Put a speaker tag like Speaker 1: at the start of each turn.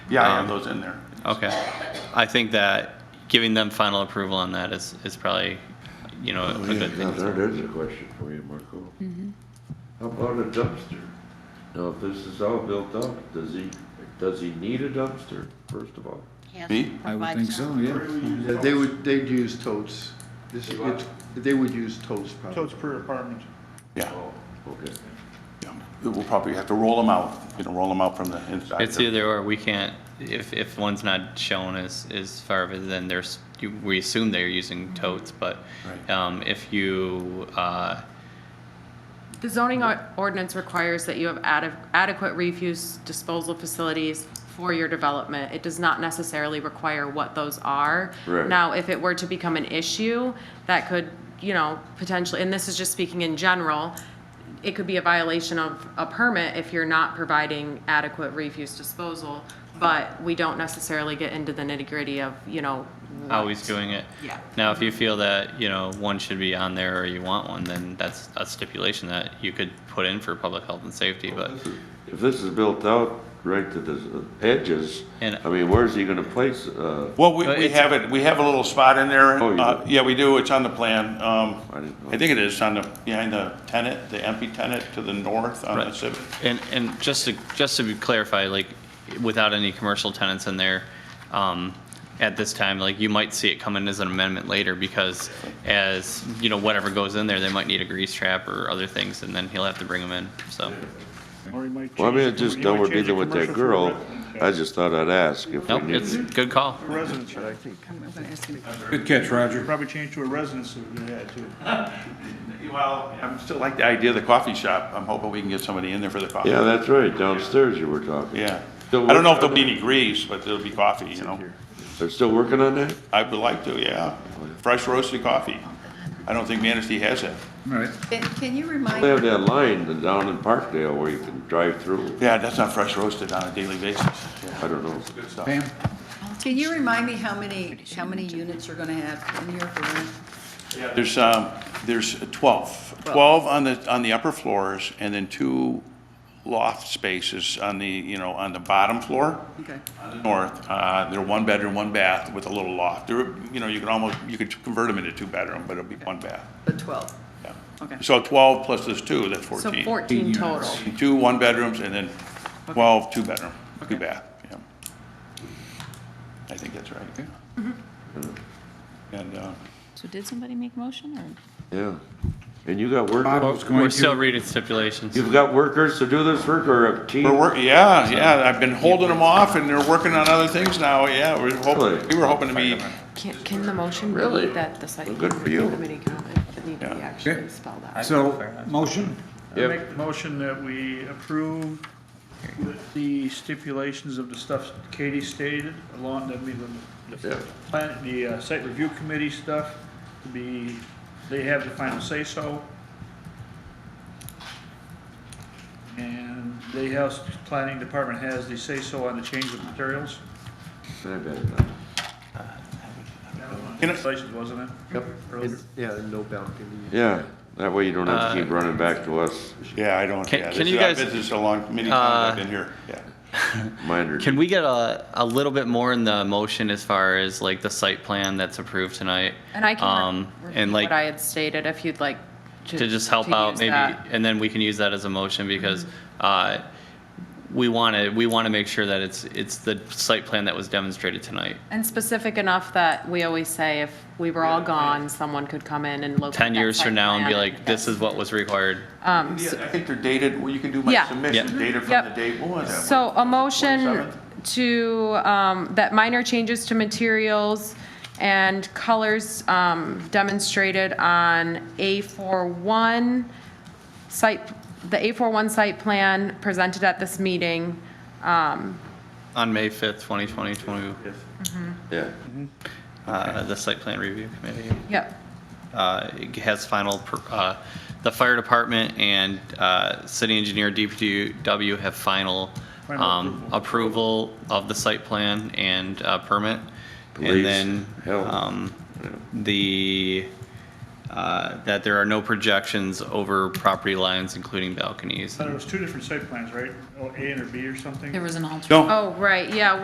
Speaker 1: Yeah,
Speaker 2: Uh,
Speaker 1: I have
Speaker 3: Um,
Speaker 1: those in there.
Speaker 3: Okay. I think that giving them final approval on that is, is probably, you know, a good
Speaker 2: Now,
Speaker 3: thing.
Speaker 2: there- there's a question for you, Marco. How about a dumpster? Now, if this is all built up, does he, does he need a dumpster, first of all?
Speaker 4: Yes,
Speaker 1: Me?
Speaker 5: I would
Speaker 4: provide
Speaker 5: think
Speaker 4: some.
Speaker 5: so, yeah.
Speaker 6: Yeah, They would, they'd use totes. This, it's, they would use totes probably.
Speaker 7: So it's per apartment.
Speaker 1: Yeah.
Speaker 2: Oh. Okay.
Speaker 1: yeah. We'll probably have to roll them out, you know, roll them out from the inside.
Speaker 3: It's either or, we can't, if, if one's not shown as, as far of it, then there's, you- we assume they're using totes, but,
Speaker 1: Right.
Speaker 3: um, if you, uh,
Speaker 8: The zoning or- ordinance requires that you have ade- adequate refuse disposal facilities for your development. It does not necessarily require what those are.
Speaker 2: Right.
Speaker 8: Now, if it were to become an issue, that could, you know, potentially, and this is just speaking in general, it could be a violation of a permit if you're not providing adequate refuse disposal, but we don't necessarily get into the nitty-gritty of, you know,
Speaker 3: how he's doing it.
Speaker 8: Yeah.
Speaker 3: Now, if you feel that, you know, one should be on there or you want one, then that's a stipulation that you could put in for public health and safety, but
Speaker 2: If this is built out right to the edges,
Speaker 3: And-
Speaker 2: I mean, where's he gonna place, uh,
Speaker 1: Well, we,
Speaker 3: But
Speaker 1: we
Speaker 3: it's-
Speaker 1: have it, we have a little spot in there.
Speaker 2: Oh, you do?
Speaker 1: Uh, Yeah, we do, it's on the plan. Um,
Speaker 2: I didn't know.
Speaker 1: I think it is on the, behind the tenant, the empty tenant to the north on the
Speaker 3: Right.
Speaker 1: civic.
Speaker 3: And, and just to, just to clarify, like, without any commercial tenants in there, um, at this time, like, you might see it come in as an amendment later, because as, you know, whatever goes in there, they might need a grease trap or other things, and then he'll have to bring them in, so.
Speaker 7: Or you might
Speaker 2: well, I mean, I
Speaker 7: change the-
Speaker 2: just
Speaker 7: you
Speaker 2: know
Speaker 7: might
Speaker 2: we're
Speaker 7: change the
Speaker 2: dealing with that
Speaker 7: commercial for
Speaker 2: girl.
Speaker 7: residence,
Speaker 2: I just thought I'd ask if we
Speaker 3: Nope,
Speaker 2: need
Speaker 3: it's a
Speaker 2: to.
Speaker 3: good call.
Speaker 7: yeah. Residence, right.
Speaker 9: I'm gonna ask him.
Speaker 10: Good catch, Roger.
Speaker 7: probably change to a residence if we had to.
Speaker 1: Well, I'm still like the idea of the coffee shop. I'm hoping we can get somebody in there for the coffee.
Speaker 2: Yeah, that's right, downstairs you were talking.
Speaker 1: Yeah.
Speaker 2: So
Speaker 1: I don't know if
Speaker 2: what-
Speaker 1: there'll be any grease, but there'll be coffee, you know?
Speaker 2: They're still working on that?
Speaker 1: I would like to, yeah. Fresh roasted coffee. I don't think Manistee has that.
Speaker 5: All right.
Speaker 9: Can- Can you remind
Speaker 2: They have that line down in Parkdale where you can drive through,
Speaker 1: Yeah, that's not fresh roasted on a daily basis.
Speaker 2: I don't know.
Speaker 1: Good stuff.
Speaker 5: Pam?
Speaker 9: Can you remind me how many, how many units you're gonna have in here for rent?
Speaker 1: There's, um, there's 12, 12 on the, on the upper floors, and then two loft spaces on the, you know, on the bottom floor,
Speaker 9: Okay.
Speaker 1: on the north. Uh, They're one bedroom, one bath with a little loft. They're, you know, you can almost, you could convert them into two bedroom, but it'll be one bath.
Speaker 9: But 12,
Speaker 1: Yeah.
Speaker 9: okay.
Speaker 1: So 12 plus this two, that's 14.
Speaker 8: so 14 total.
Speaker 1: Two one bedrooms, and then 12 two bedroom, two bath, yeah. I think that's right.
Speaker 3: Mm-hmm.
Speaker 1: And, uh,
Speaker 11: So did somebody make motion or?
Speaker 2: Yeah. And you got work,
Speaker 5: Bob was
Speaker 3: We're
Speaker 5: going
Speaker 3: still
Speaker 5: to,
Speaker 3: reading stipulations.
Speaker 2: you've got workers to do this work or a team?
Speaker 1: We're work, yeah, yeah, I've been holding them off and they're working on other things now, yeah, we're hoping,
Speaker 2: Really?
Speaker 1: we were hoping to be,
Speaker 8: Can, can the motion
Speaker 2: Really?
Speaker 8: be that the site
Speaker 2: Well, good for you.
Speaker 8: committee comment would need to be
Speaker 1: Yeah.
Speaker 5: Okay.
Speaker 8: actually spelled out?
Speaker 10: Fair.
Speaker 5: so, motion?
Speaker 7: I make the motion that we approve the stipulations of the stuff Katie stated, along, that mean, the, the
Speaker 2: Yeah.
Speaker 7: plan, the uh, site review committee stuff, to be, they have the final say-so. And the House Planning Department has the say-so on the change of materials.
Speaker 2: I bet uh, not.
Speaker 1: Can I-
Speaker 7: Stipulations, wasn't it?
Speaker 6: Yep.
Speaker 7: Earlier.
Speaker 6: Yeah, and no balcony.
Speaker 2: Yeah, that way you don't
Speaker 3: Uh,
Speaker 2: have to keep running back to us,
Speaker 1: yeah, I don't,
Speaker 3: Can-
Speaker 1: yeah,
Speaker 3: can
Speaker 1: this
Speaker 3: you
Speaker 1: is, I've
Speaker 3: guys- uh,
Speaker 1: been this a long, many times I've been here, yeah.
Speaker 2: minor.
Speaker 3: Can we get a, a little bit more in the motion as far as like the site plan that's approved tonight?
Speaker 8: And I can
Speaker 3: um,
Speaker 8: re-
Speaker 3: And
Speaker 8: repeat
Speaker 3: like,
Speaker 8: what I had stated, if you'd like to.
Speaker 3: to just help
Speaker 8: to
Speaker 3: out
Speaker 8: use
Speaker 3: maybe,
Speaker 8: that. Mm-hmm.
Speaker 3: and then we can use that as a motion because uh, we want to, we want to make sure that it's, it's the site plan that was demonstrated tonight.
Speaker 8: And specific enough that we always say if we were all gone, someone could come in and look.
Speaker 3: 10 years from now and be like, this is what was required.
Speaker 8: Uh,
Speaker 1: Yeah, I think they're dated, well, you can do my
Speaker 8: Yeah.
Speaker 1: submission,
Speaker 3: um, Yeah.
Speaker 1: dated from
Speaker 8: Yep.
Speaker 1: the date, what was that?
Speaker 8: So a motion
Speaker 1: 27th?
Speaker 8: to, um, that minor changes to materials and colors, um, demonstrated on A41 site, the A41 site plan presented at this meeting.
Speaker 3: On May 5th, 2020, 20,
Speaker 2: Yeah.
Speaker 3: uh, the site plan review committee
Speaker 8: Yep.
Speaker 3: uh, it has final, per- uh, the fire department and uh, city engineer DPW have final
Speaker 7: Final
Speaker 3: um, approval of the site plan and uh, permit.
Speaker 2: Police,
Speaker 3: And then
Speaker 2: health.
Speaker 3: um, the, uh, that there are no projections over property lines, including balconies.
Speaker 7: There was two different site plans, right? Oh, A and or B or something?
Speaker 11: There was an alternate.
Speaker 1: No,
Speaker 8: Oh, right, yeah,